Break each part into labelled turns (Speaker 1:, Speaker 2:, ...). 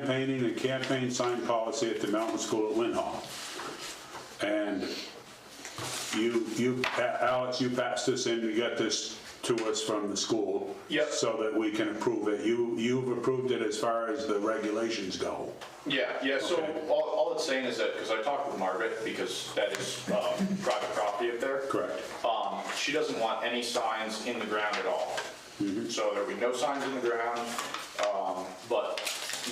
Speaker 1: campaigning and campaign sign policy at the Mountain School at Lynn Hall. And you, you, Alex, you passed this in, you got this to us from the school.
Speaker 2: Yep.
Speaker 1: So that we can approve it. You, you've approved it as far as the regulations go.
Speaker 2: Yeah, yeah, so
Speaker 1: Okay.
Speaker 2: all, all it's saying is that, because I talked with Margaret, because that is um, private property up there.
Speaker 1: Correct.
Speaker 2: Um, She doesn't want any signs in the ground at all.
Speaker 1: Mm-hmm.
Speaker 2: So there'll be no signs in the ground, um, but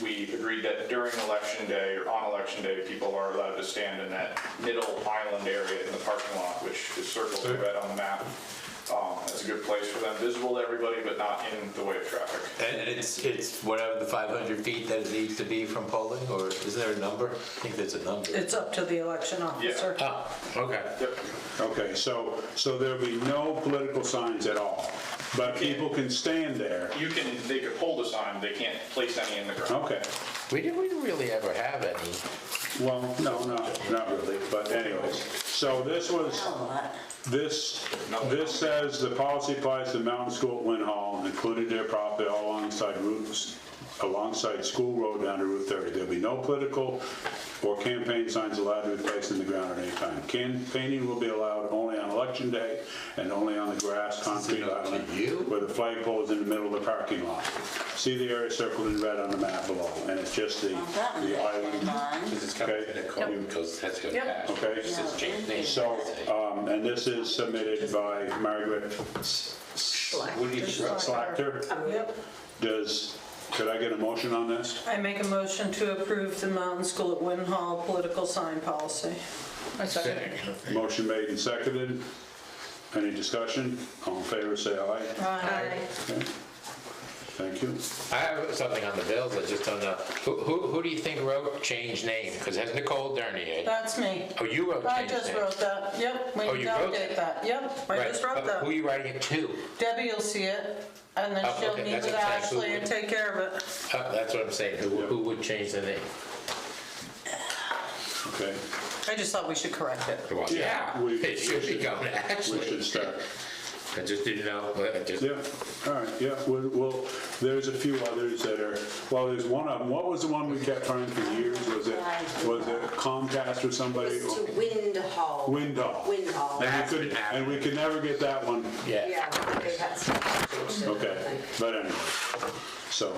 Speaker 2: we agreed that during election day or on election day, people are allowed to stand in that middle island area in the parking lot, which is circled in red on the map. Um, That's a good place for them, visible to everybody, but not in the way of traffic.
Speaker 3: And it's, it's whatever the 500 feet that it needs to be from polling, or is there a number? I think there's a number.
Speaker 4: It's up to the election officer.
Speaker 3: Oh, okay.
Speaker 2: Yep.
Speaker 1: Okay, so, so there'll be no political signs at all, but people can stand there.
Speaker 2: You can, they could hold a sign, they can't place any in the ground.
Speaker 1: Okay,
Speaker 3: We didn't, we didn't really ever have any.
Speaker 1: well, no, no, not really, but anyways. So this was, this, this says the policy applies to Mountain School at Lynn Hall, including their property all alongside routes, alongside School Road down to Route 30. There'll be no political or campaign signs allowed to be placed in the ground at any time. Campaigning will be allowed only on election day and only on the grass, concrete
Speaker 3: up to
Speaker 1: island
Speaker 3: you?
Speaker 1: where the flagpole is in the middle of the parking lot. See the area circled in red on the map below, and it's just the, the island.
Speaker 5: Because it's coming
Speaker 1: Okay.
Speaker 5: in a code, because that's going to
Speaker 4: Yep.
Speaker 5: pass.
Speaker 1: Okay.
Speaker 5: It's just changed name.
Speaker 1: So, um, and this is submitted by Margaret
Speaker 5: Woody
Speaker 1: Slachter.
Speaker 4: Yep.
Speaker 1: Does, could I get a motion on this?
Speaker 4: I make a motion to approve the Mountain School at Winhall political sign policy.
Speaker 6: I second.
Speaker 1: Motion made and seconded. Any discussion? All in favor, say aye.
Speaker 4: Aye.
Speaker 1: Okay. Thank you.
Speaker 3: I have something on the bills, I just don't know. Who, who, who do you think wrote change name? Because that's Nicole Dernier.
Speaker 4: That's me.
Speaker 3: Oh, you wrote
Speaker 4: I
Speaker 3: change name.
Speaker 4: just wrote that, yep. We
Speaker 3: Oh,
Speaker 4: need
Speaker 3: you
Speaker 4: to
Speaker 3: wrote
Speaker 4: update that, yep. I
Speaker 3: Right,
Speaker 4: just wrote
Speaker 3: but Who are
Speaker 4: that.
Speaker 3: you writing it to?
Speaker 4: Debbie will see it, and then
Speaker 3: Oh,
Speaker 4: she'll
Speaker 3: okay,
Speaker 4: meet
Speaker 3: that's
Speaker 4: with
Speaker 3: what I'm saying.
Speaker 4: Ashley and take care of it.
Speaker 3: Uh, That's what I'm saying, who, who would change the name?
Speaker 1: Okay.
Speaker 4: I just thought we should correct it.
Speaker 3: Well,
Speaker 1: Yeah, we-
Speaker 3: It should be going to
Speaker 1: We should
Speaker 3: Ashley.
Speaker 1: start.
Speaker 3: I just didn't know, I just,
Speaker 1: Yeah, all right, yeah, we'll- well, there's a few others that are, well, there's one of them. What was the one we kept trying for years? Was it, was it Comcast or somebody?
Speaker 7: It's to Windhall.
Speaker 1: Windhall.
Speaker 7: Windhall.
Speaker 1: And we could, and we could never get that one.
Speaker 3: yeah.
Speaker 7: Yeah, they had some.
Speaker 1: Okay, but anyway, so,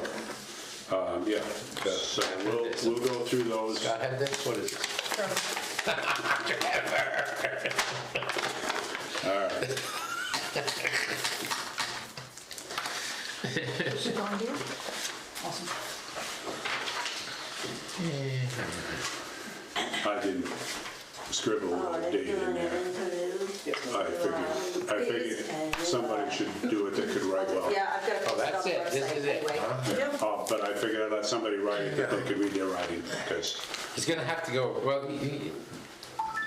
Speaker 1: um, yeah, so we'll, we'll go through those.
Speaker 3: I have this, what is it?
Speaker 1: I didn't scribble
Speaker 7: Oh,
Speaker 1: a date in there. I figured, I figured somebody should do it that could write well.
Speaker 7: Yeah, I've got to
Speaker 3: Oh,
Speaker 7: post it on
Speaker 3: that's
Speaker 7: the
Speaker 3: it, this
Speaker 7: website
Speaker 3: is it,
Speaker 7: anyway.
Speaker 3: huh?
Speaker 4: Yep.
Speaker 1: Oh, but I figured I'd let somebody write it that they could read their writing, because,
Speaker 3: It's gonna have to go, well, y- y-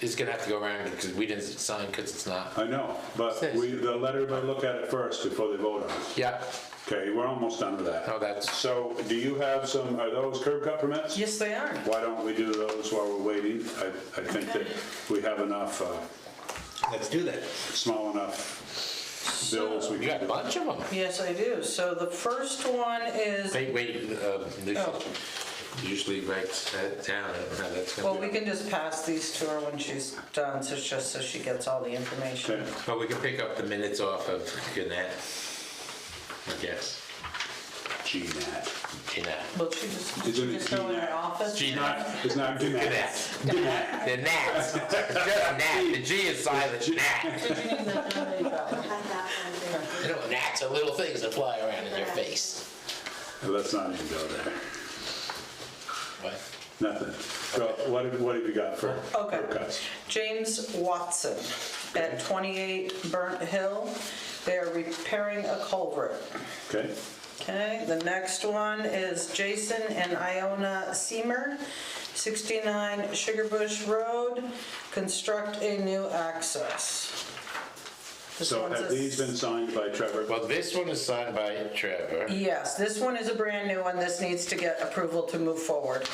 Speaker 3: it's gonna have to go around because we didn't sign because it's not.
Speaker 1: I know, but we, the letter, we look at it first before they vote on it.
Speaker 3: Yeah,
Speaker 1: Okay, we're almost done with that.
Speaker 3: Oh, that's-
Speaker 1: So, do you have some, are those curb cut permits?
Speaker 4: Yes, they are.
Speaker 1: Why don't we do those while we're waiting? I, I think that we have enough, uh,
Speaker 3: let's do that.
Speaker 1: small enough bills we
Speaker 3: You got a
Speaker 1: can.
Speaker 3: bunch of them.
Speaker 4: Yes, I do. So the first one is,
Speaker 3: Wait, wait, um,
Speaker 4: Oh.
Speaker 3: this usually writes that down, I don't know how that's
Speaker 4: well,
Speaker 3: gonna
Speaker 4: we
Speaker 3: be.
Speaker 4: can just pass these to her when she's done, so it's just so she gets all the information.
Speaker 1: Okay,
Speaker 3: But we can pick up the minutes off of Gannett, I guess.
Speaker 1: GNAT.
Speaker 3: Gannett.
Speaker 4: Well, she just,
Speaker 1: Isn't
Speaker 4: she
Speaker 1: it
Speaker 4: just go in her
Speaker 1: GNAT?
Speaker 4: office.
Speaker 3: G-
Speaker 1: Not, it's not GNAT.
Speaker 3: Gannett.
Speaker 1: GNAT.
Speaker 3: The gnats. Just gnat, the G is silent,
Speaker 4: Did
Speaker 3: gnat.
Speaker 4: you need that? No, you got it.
Speaker 7: Had that one there.
Speaker 3: You know, gnats are little things that fly around in your face.
Speaker 1: Let's not even go there.
Speaker 3: What?
Speaker 1: Nothing. So what have, what have you got for
Speaker 4: Okay.
Speaker 1: curb cuts?
Speaker 4: James Watson at 28 Burnt Hill. They're repairing a culvert.
Speaker 1: Okay,
Speaker 4: Okay, the next one is Jason and Iona Seamer, 69 Sugar Bush Road, construct a new access. This
Speaker 1: so
Speaker 4: one's
Speaker 1: have
Speaker 4: a-
Speaker 1: these been signed by Trevor?
Speaker 3: Well, this one is signed by Trevor.
Speaker 4: Yes, this one is a brand new one. This needs to get approval to move forward.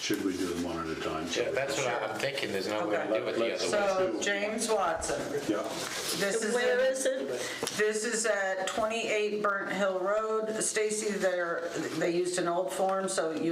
Speaker 1: Should we do them one at a time?
Speaker 3: Yeah, that's what I'm thinking, there's no way to do it
Speaker 1: Oh,
Speaker 3: the other way.
Speaker 4: So James Watson,
Speaker 1: Yeah,
Speaker 4: this is.
Speaker 7: Where is it?
Speaker 4: This is at 28 Burnt Hill Road. Stacy, they're, they used an old form, so you